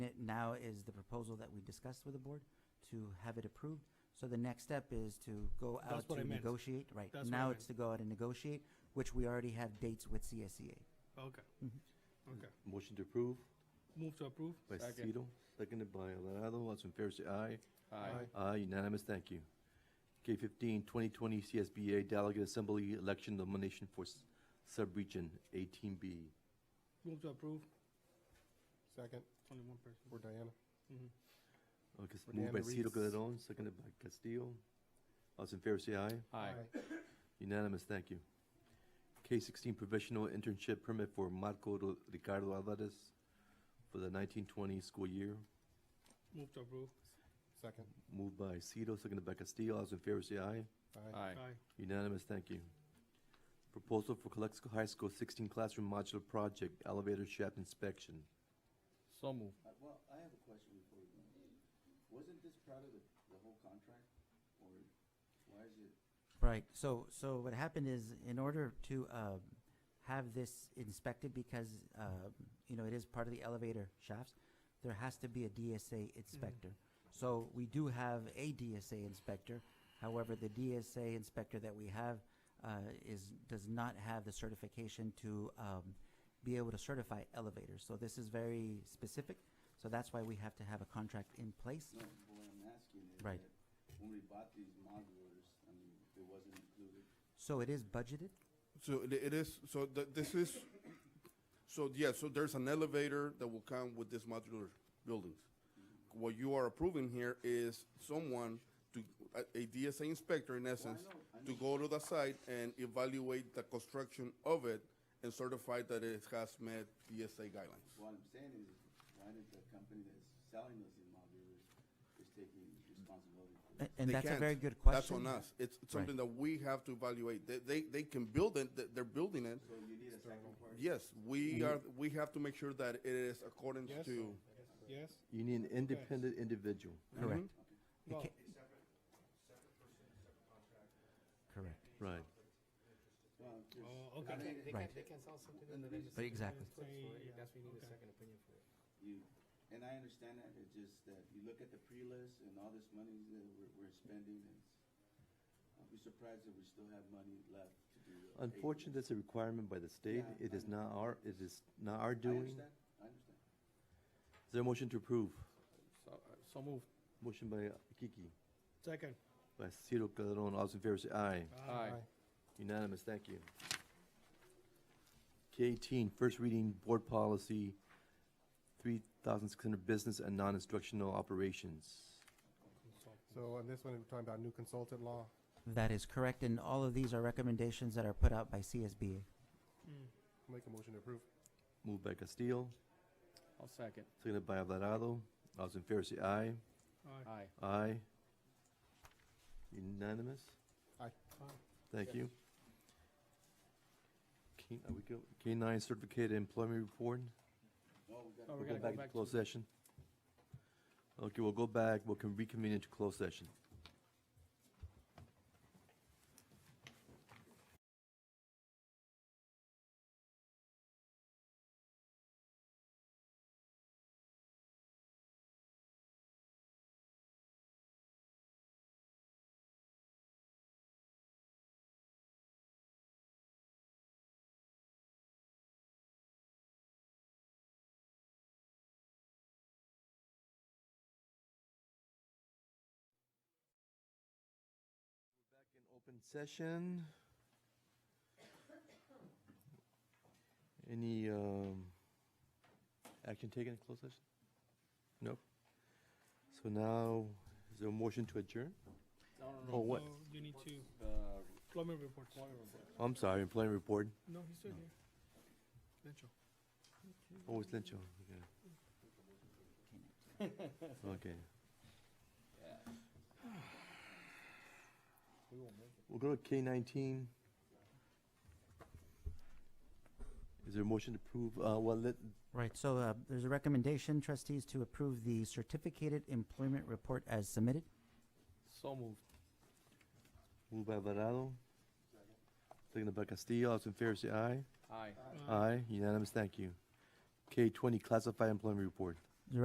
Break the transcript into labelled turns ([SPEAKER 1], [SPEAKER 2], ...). [SPEAKER 1] now is the proposal that we discussed with the board to have it approved. So the next step is to go
[SPEAKER 2] That's
[SPEAKER 1] out
[SPEAKER 2] what I
[SPEAKER 1] to
[SPEAKER 2] meant.
[SPEAKER 1] negotiate, right?
[SPEAKER 2] That's what I
[SPEAKER 1] Now
[SPEAKER 2] meant.
[SPEAKER 1] it's to go out and negotiate, which we already have dates with E CSEA.
[SPEAKER 2] Okay.
[SPEAKER 3] Mm-hmm.
[SPEAKER 2] Okay.
[SPEAKER 3] Motion to approve
[SPEAKER 2] Move to approve?
[SPEAKER 3] by
[SPEAKER 4] Second.
[SPEAKER 3] Cito, seconded by Alvarado. All those in favor say aye.
[SPEAKER 4] Aye.
[SPEAKER 3] Aye, unanimous, thank you. K 15 2020 CSBA Delegate Assembly Election Nomination for s- Subregion 18B.
[SPEAKER 2] Move to approve?
[SPEAKER 4] Second
[SPEAKER 2] Only one person. Mm-hmm.
[SPEAKER 4] for Diana.
[SPEAKER 3] Okay, it's
[SPEAKER 4] For
[SPEAKER 3] Uh, moved by
[SPEAKER 4] Deanna
[SPEAKER 3] Cito
[SPEAKER 4] Reeves.
[SPEAKER 3] Calderon, seconded by Castillo. All those in favor say aye. Unanimous, thank you. K sixteen provisional internship permit for Marco Ro- Ricardo Alvarez for the nineteen twenty school year,
[SPEAKER 2] Move to approve?
[SPEAKER 4] Second.
[SPEAKER 3] moved by Cito, seconded by Castillo. All those in favor say aye.
[SPEAKER 4] Aye.
[SPEAKER 2] Aye.
[SPEAKER 3] Unanimous, thank you. Proposal for Calexico High School sixteen classroom modular project elevator shaft inspection.
[SPEAKER 5] So moved.
[SPEAKER 6] Uh, Well, I have a question before you. move. Wasn't this part of the, the whole contract, or why is it?
[SPEAKER 1] Right. So, so what happened is, in order to um, have this inspected, because um, you know it is part of the elevator shafts, there has to be a DSA inspector. So we do have a DSA inspector. However, the DSA inspector that we have uh, is does not have the certification to um, be able to certify elevators. So this is very specific. So that's why we have to have a contract in place.
[SPEAKER 6] No, but what I'm asking is
[SPEAKER 1] Right.
[SPEAKER 6] that when we bought these modulars, I mean, it wasn't included.
[SPEAKER 1] So it is budgeted.
[SPEAKER 7] So it- it is, so th- this is, so yeah, so there's an elevator that will come with these modular buildings. What you are approving here is someone to, a- a DSA inspector in essence, to go to the site and evaluate the construction of it and certify that it has met DSA guidelines.
[SPEAKER 6] What I'm saying is, why did the company that's selling us these modulars is taking responsibility for
[SPEAKER 1] A-
[SPEAKER 6] this?
[SPEAKER 1] And
[SPEAKER 7] They
[SPEAKER 1] that's a
[SPEAKER 7] can't.
[SPEAKER 1] very good question.
[SPEAKER 7] That's on us. It's it's something that we have to evaluate. They, they, they can build it, th- they're building it.
[SPEAKER 6] So you need a second party?
[SPEAKER 7] Yes,
[SPEAKER 1] Mm-hmm.
[SPEAKER 7] we are, we have to make sure that it is according
[SPEAKER 2] Yes.
[SPEAKER 7] to.
[SPEAKER 2] Yes?
[SPEAKER 3] You need an independent individual.
[SPEAKER 7] Mm-hmm.
[SPEAKER 1] Correct. It
[SPEAKER 2] No.
[SPEAKER 1] ca- Correct.
[SPEAKER 3] Right.
[SPEAKER 6] Well, I'm curious.
[SPEAKER 2] Oh, okay.
[SPEAKER 8] They
[SPEAKER 1] Right.
[SPEAKER 8] can't, they can't sell something in the
[SPEAKER 1] But
[SPEAKER 8] registry.
[SPEAKER 1] exactly.
[SPEAKER 8] That's what you
[SPEAKER 2] Yeah,
[SPEAKER 8] need a
[SPEAKER 2] okay.
[SPEAKER 8] second opinion for.
[SPEAKER 6] You, and I understand that, it's just that you look at the pre-list and all this money that we're, we're spending, and I'll be surprised if we still have money left to do. uh, eight
[SPEAKER 3] Unfortunately,
[SPEAKER 6] years.
[SPEAKER 3] that's a requirement by the state.
[SPEAKER 6] Yeah,
[SPEAKER 3] It
[SPEAKER 6] I
[SPEAKER 3] is
[SPEAKER 6] know.
[SPEAKER 3] not our, it is not our
[SPEAKER 6] I
[SPEAKER 3] doing.
[SPEAKER 6] understand, I understand.
[SPEAKER 3] Is there a motion to approve?
[SPEAKER 5] So, so moved.
[SPEAKER 3] Motion by Kiki.
[SPEAKER 2] Second.
[SPEAKER 3] By Ciro Calderon, all those in favor say aye.
[SPEAKER 5] Aye.
[SPEAKER 3] Unanimous, thank you. K eighteen, first reading board policy, three thousand six hundred business and non-instructional operations.
[SPEAKER 4] So on this one, we're talking about new consultant law.
[SPEAKER 1] That is correct, and all of these are recommendations that are put out by CSBA.
[SPEAKER 4] Make a motion to approve.
[SPEAKER 3] Moved by Castillo,
[SPEAKER 5] I'll second.
[SPEAKER 3] seconded by Alvarado. All those in favor say aye.
[SPEAKER 2] Aye.
[SPEAKER 5] Aye.
[SPEAKER 3] Aye. Unanimous,
[SPEAKER 2] Aye.
[SPEAKER 3] thank
[SPEAKER 2] Yes.
[SPEAKER 3] you. K, are we go, K nine certificated employment report.
[SPEAKER 6] Well, we got
[SPEAKER 2] Oh,
[SPEAKER 3] We'll
[SPEAKER 2] we're
[SPEAKER 3] go
[SPEAKER 2] gonna
[SPEAKER 3] back
[SPEAKER 2] go
[SPEAKER 3] to
[SPEAKER 2] back
[SPEAKER 3] closed
[SPEAKER 2] to,
[SPEAKER 3] session. Okay, we'll go back, we'll con- reconvene into closed session. In open session. Any um, action taken in closed session? Nope. So now, is there a motion to adjourn?
[SPEAKER 5] No, no,
[SPEAKER 3] Oh,
[SPEAKER 5] no.
[SPEAKER 3] what?
[SPEAKER 2] No, You need to,
[SPEAKER 5] The
[SPEAKER 2] Plummer reports.
[SPEAKER 5] employment report.
[SPEAKER 3] I'm sorry, employment report.
[SPEAKER 2] No, he's still here. Mitchell.
[SPEAKER 3] Oh, it's Lencho. Okay. Okay. We'll go to K nineteen. Is there a motion to approve, uh, well, let,
[SPEAKER 1] Right, so uh, there's a recommendation, trustees, to approve the certificated employment report as submitted.
[SPEAKER 5] So moved.
[SPEAKER 3] moved by Alvarado. Seconded by Castillo, all those in favor say aye.
[SPEAKER 5] Aye.
[SPEAKER 2] Aye.
[SPEAKER 3] Aye, unanimous, thank you. K twenty, classified employment report.